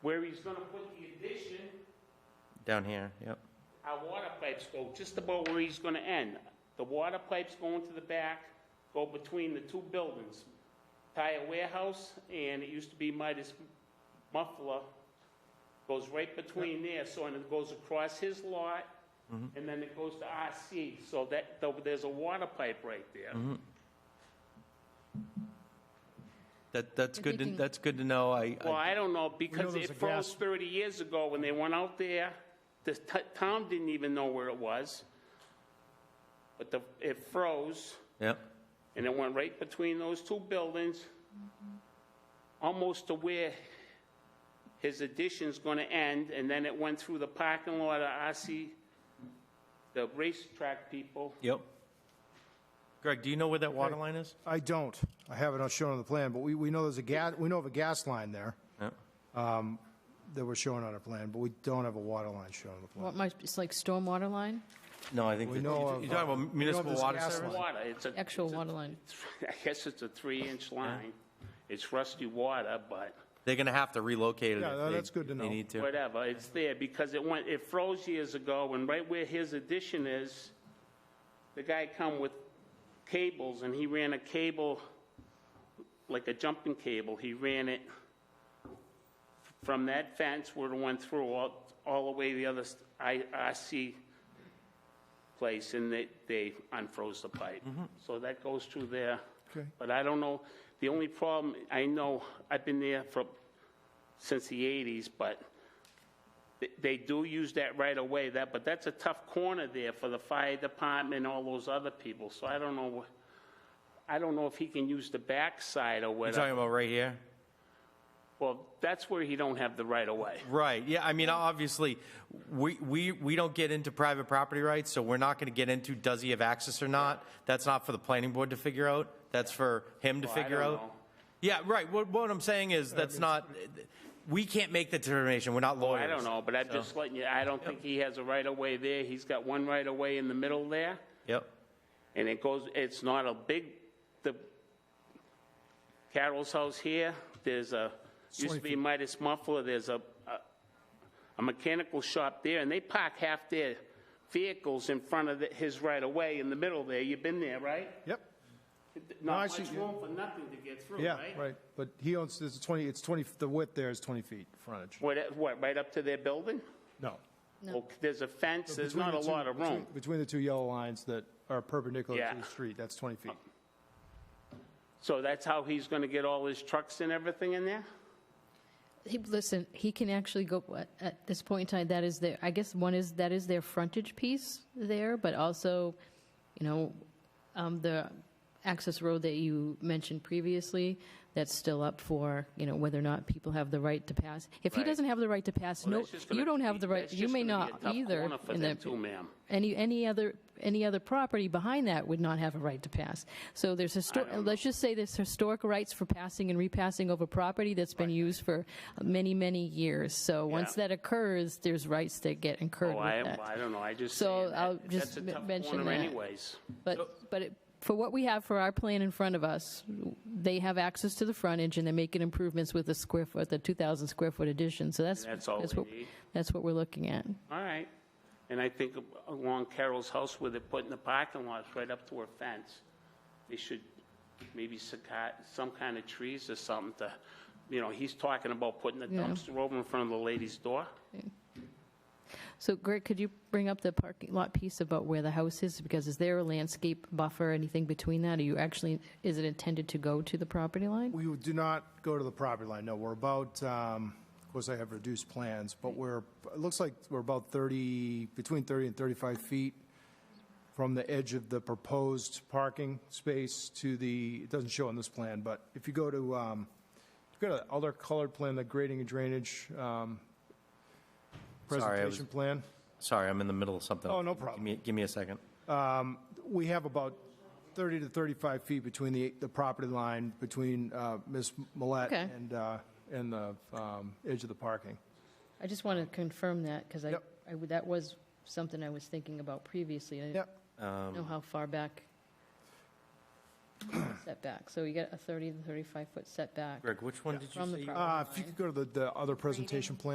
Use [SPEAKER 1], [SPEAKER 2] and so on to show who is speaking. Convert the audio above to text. [SPEAKER 1] he's gonna put the addition,
[SPEAKER 2] down here, yep.
[SPEAKER 1] our water pipes go just about where he's gonna end. The water pipes go into the back, go between the two buildings, tire warehouse, and it used to be Midas Muffler, goes right between there, so, and it goes across his lot, and then it goes to RC, so that, though, there's a water pipe right there.
[SPEAKER 2] That, that's
[SPEAKER 3] If
[SPEAKER 2] good,
[SPEAKER 3] you
[SPEAKER 2] to-
[SPEAKER 3] can-
[SPEAKER 2] that's good to know, I,
[SPEAKER 1] Well,
[SPEAKER 2] I-
[SPEAKER 1] I don't know, because
[SPEAKER 4] there's
[SPEAKER 1] it
[SPEAKER 4] a
[SPEAKER 1] froze
[SPEAKER 4] gas-
[SPEAKER 1] 30 years ago when they went out there. The t- town didn't even know where it was. But the, it froze,
[SPEAKER 2] yep,
[SPEAKER 1] and it went right between those two buildings,
[SPEAKER 4] Mm-hmm.
[SPEAKER 1] almost to where his addition's gonna end, and then it went through the parking lot of RC, the racetrack people.
[SPEAKER 2] yep. Greg, do you know where that water
[SPEAKER 4] Okay.
[SPEAKER 2] line is?
[SPEAKER 4] I don't. I have it on- shown on the plan, but we, we know there's a gas, we know of a gas line there Um,
[SPEAKER 2] Yep.
[SPEAKER 4] that we're showing on our plan, but we don't have a water line shown on the plan.
[SPEAKER 3] What might, it's like stormwater line,
[SPEAKER 2] No, I think,
[SPEAKER 4] We
[SPEAKER 2] that-
[SPEAKER 4] know
[SPEAKER 2] you're talking
[SPEAKER 4] of, uh, we know
[SPEAKER 2] about
[SPEAKER 4] of
[SPEAKER 2] municipal
[SPEAKER 4] this
[SPEAKER 2] water
[SPEAKER 4] gas
[SPEAKER 2] service?
[SPEAKER 4] line.
[SPEAKER 1] Water, it's a.
[SPEAKER 3] actual
[SPEAKER 1] it's a-
[SPEAKER 3] water line.
[SPEAKER 1] I guess it's a three-inch line. It's rusty water, but.
[SPEAKER 2] They're gonna have to relocate it
[SPEAKER 4] Yeah,
[SPEAKER 2] if
[SPEAKER 4] no,
[SPEAKER 2] they-
[SPEAKER 4] that's good to
[SPEAKER 2] if they
[SPEAKER 4] know.
[SPEAKER 2] need to.
[SPEAKER 1] whatever, it's there, because it went, it froze years ago, and right where his addition is, the guy come with cables, and he ran a cable, like a jumping cable, he ran it from that fence where it went through, all, all the way the other s- I- IRC place, and they, they unfroze the pipe.
[SPEAKER 2] Mm-hmm.
[SPEAKER 1] So that goes through there.
[SPEAKER 4] Okay.
[SPEAKER 1] But I don't know, the only problem, I know, I've been there for, since the 80s, but they- they do use that right away, that, but that's a tough corner there for the fire department and all those other people, so I don't know, wh- I don't know if he can use the backside or
[SPEAKER 2] You're talking
[SPEAKER 1] whatever.
[SPEAKER 2] about right here?
[SPEAKER 1] Well, that's where he don't have the right of way.
[SPEAKER 2] Right, yeah, I mean, obviously, we, we, we don't get into private property rights, so we're not gonna get into does he have access or not. That's not for the planning board to figure out, that's for him to
[SPEAKER 1] Well, I
[SPEAKER 2] figure
[SPEAKER 1] don't
[SPEAKER 2] out.
[SPEAKER 1] know.
[SPEAKER 2] Yeah, right, what, what I'm saying is, that's not, we can't make the determination, we're not lawyers.
[SPEAKER 1] I don't know, but I'm
[SPEAKER 2] so-
[SPEAKER 1] just letting you, I don't think he has a right of way there, he's got one right of way in the middle there,
[SPEAKER 2] Yep,
[SPEAKER 1] and it goes, it's not a big, the Carol's house here, there's a, used to be Midas Muffler, there's a, a- a mechanical shop there, and they park half their vehicles in front of the- his right of way in the middle there, you've been there, right?
[SPEAKER 4] Yep, I
[SPEAKER 1] Not
[SPEAKER 4] see,
[SPEAKER 1] much
[SPEAKER 4] yeah.
[SPEAKER 1] room for nothing to get through,
[SPEAKER 4] yeah,
[SPEAKER 1] right?
[SPEAKER 4] right. But he owns, there's a 20, it's 20, the width there is 20 feet frontage.
[SPEAKER 1] What, what, right up to their building?
[SPEAKER 4] No.
[SPEAKER 1] Oh, There's a fence, there's
[SPEAKER 4] Between
[SPEAKER 1] not
[SPEAKER 4] the
[SPEAKER 1] a
[SPEAKER 4] two-
[SPEAKER 1] lot of
[SPEAKER 4] between-
[SPEAKER 1] room.
[SPEAKER 4] Between the two yellow lines that are perpendicular
[SPEAKER 1] Yeah.
[SPEAKER 4] to the street, that's 20 feet.
[SPEAKER 1] So that's how he's going to get all his trucks and everything in there?
[SPEAKER 3] He, listen, he can actually go, at- at this point in time, that is their, I guess one is, that is their frontage piece there, but also, you know, um, the access road that you mentioned previously, that's still up for, you know, whether or not people have the right to pass. If he
[SPEAKER 1] Right.
[SPEAKER 3] doesn't have the right to pass,
[SPEAKER 1] Well,
[SPEAKER 3] no,
[SPEAKER 1] that's just gonna
[SPEAKER 3] you don't have
[SPEAKER 1] be-
[SPEAKER 3] the right,
[SPEAKER 1] that's
[SPEAKER 3] you
[SPEAKER 1] just
[SPEAKER 3] may
[SPEAKER 1] gonna be a
[SPEAKER 3] not
[SPEAKER 1] tough
[SPEAKER 3] either.
[SPEAKER 1] corner for
[SPEAKER 3] in
[SPEAKER 1] them
[SPEAKER 3] the-
[SPEAKER 1] too, ma'am.
[SPEAKER 3] Any, any other, any other property behind that would not have a right to pass. So there's historic, let's just say there's historic rights for passing and repassing over property that's been used for many, many years. So once
[SPEAKER 1] Yeah.
[SPEAKER 3] that occurs, there's rights that get incurred
[SPEAKER 1] Oh, I,
[SPEAKER 3] with
[SPEAKER 1] I
[SPEAKER 3] that.
[SPEAKER 1] don't know, I just.
[SPEAKER 3] So
[SPEAKER 1] saying that.
[SPEAKER 3] I'll just
[SPEAKER 1] That's a tough
[SPEAKER 3] mention
[SPEAKER 1] corner
[SPEAKER 3] that.
[SPEAKER 1] anyways.
[SPEAKER 3] But, but it- for what we have for our plan in front of us, they have access to the frontage and they're making improvements with the square foot, the 2,000 square foot addition. So that's,
[SPEAKER 1] That's all
[SPEAKER 3] that's
[SPEAKER 1] we
[SPEAKER 3] what,
[SPEAKER 1] need.
[SPEAKER 3] that's what we're looking at.
[SPEAKER 1] All right. And I think along Carol's house where they're putting the parking lots right up to her fence, they should maybe saca- some kind of trees or something to, you know, he's talking about putting the
[SPEAKER 3] Yeah.
[SPEAKER 1] dumpster over in front of the lady's door.
[SPEAKER 3] So Greg, could you bring up the parking lot piece about where the house is? Because is there a landscape buffer, anything between that? Are you actually, is it intended to go to the property line?
[SPEAKER 4] We do not go to the property line, no. We're about, um, of course, I have reduced plans, but we're, it looks like we're about 30, between 30 and 35 feet from the edge of the proposed parking space to the, it doesn't show on this plan, but if you go to, um, if you go to the other colored plan, the grading and drainage um,
[SPEAKER 2] Sorry, I was-
[SPEAKER 4] presentation plan,
[SPEAKER 2] sorry, I'm in the middle of something.
[SPEAKER 4] Oh, no
[SPEAKER 2] Give
[SPEAKER 4] problem.
[SPEAKER 2] me- Give me a second.
[SPEAKER 4] we have about 30 to 35 feet between the, the property line, between uh, Ms. Millet
[SPEAKER 3] Okay.
[SPEAKER 4] and, uh, and the um, edge of the parking.
[SPEAKER 3] I just want to confirm that because I,
[SPEAKER 4] Yep.
[SPEAKER 3] I would- that was something I was thinking about previously. I
[SPEAKER 4] Yep.
[SPEAKER 3] didn't know how far back setback. So you got a 30 to 35 foot setback.
[SPEAKER 2] Greg, which one did you
[SPEAKER 3] From the
[SPEAKER 2] say? you-
[SPEAKER 3] property
[SPEAKER 4] Uh, If you could go to the, the other presentation plan.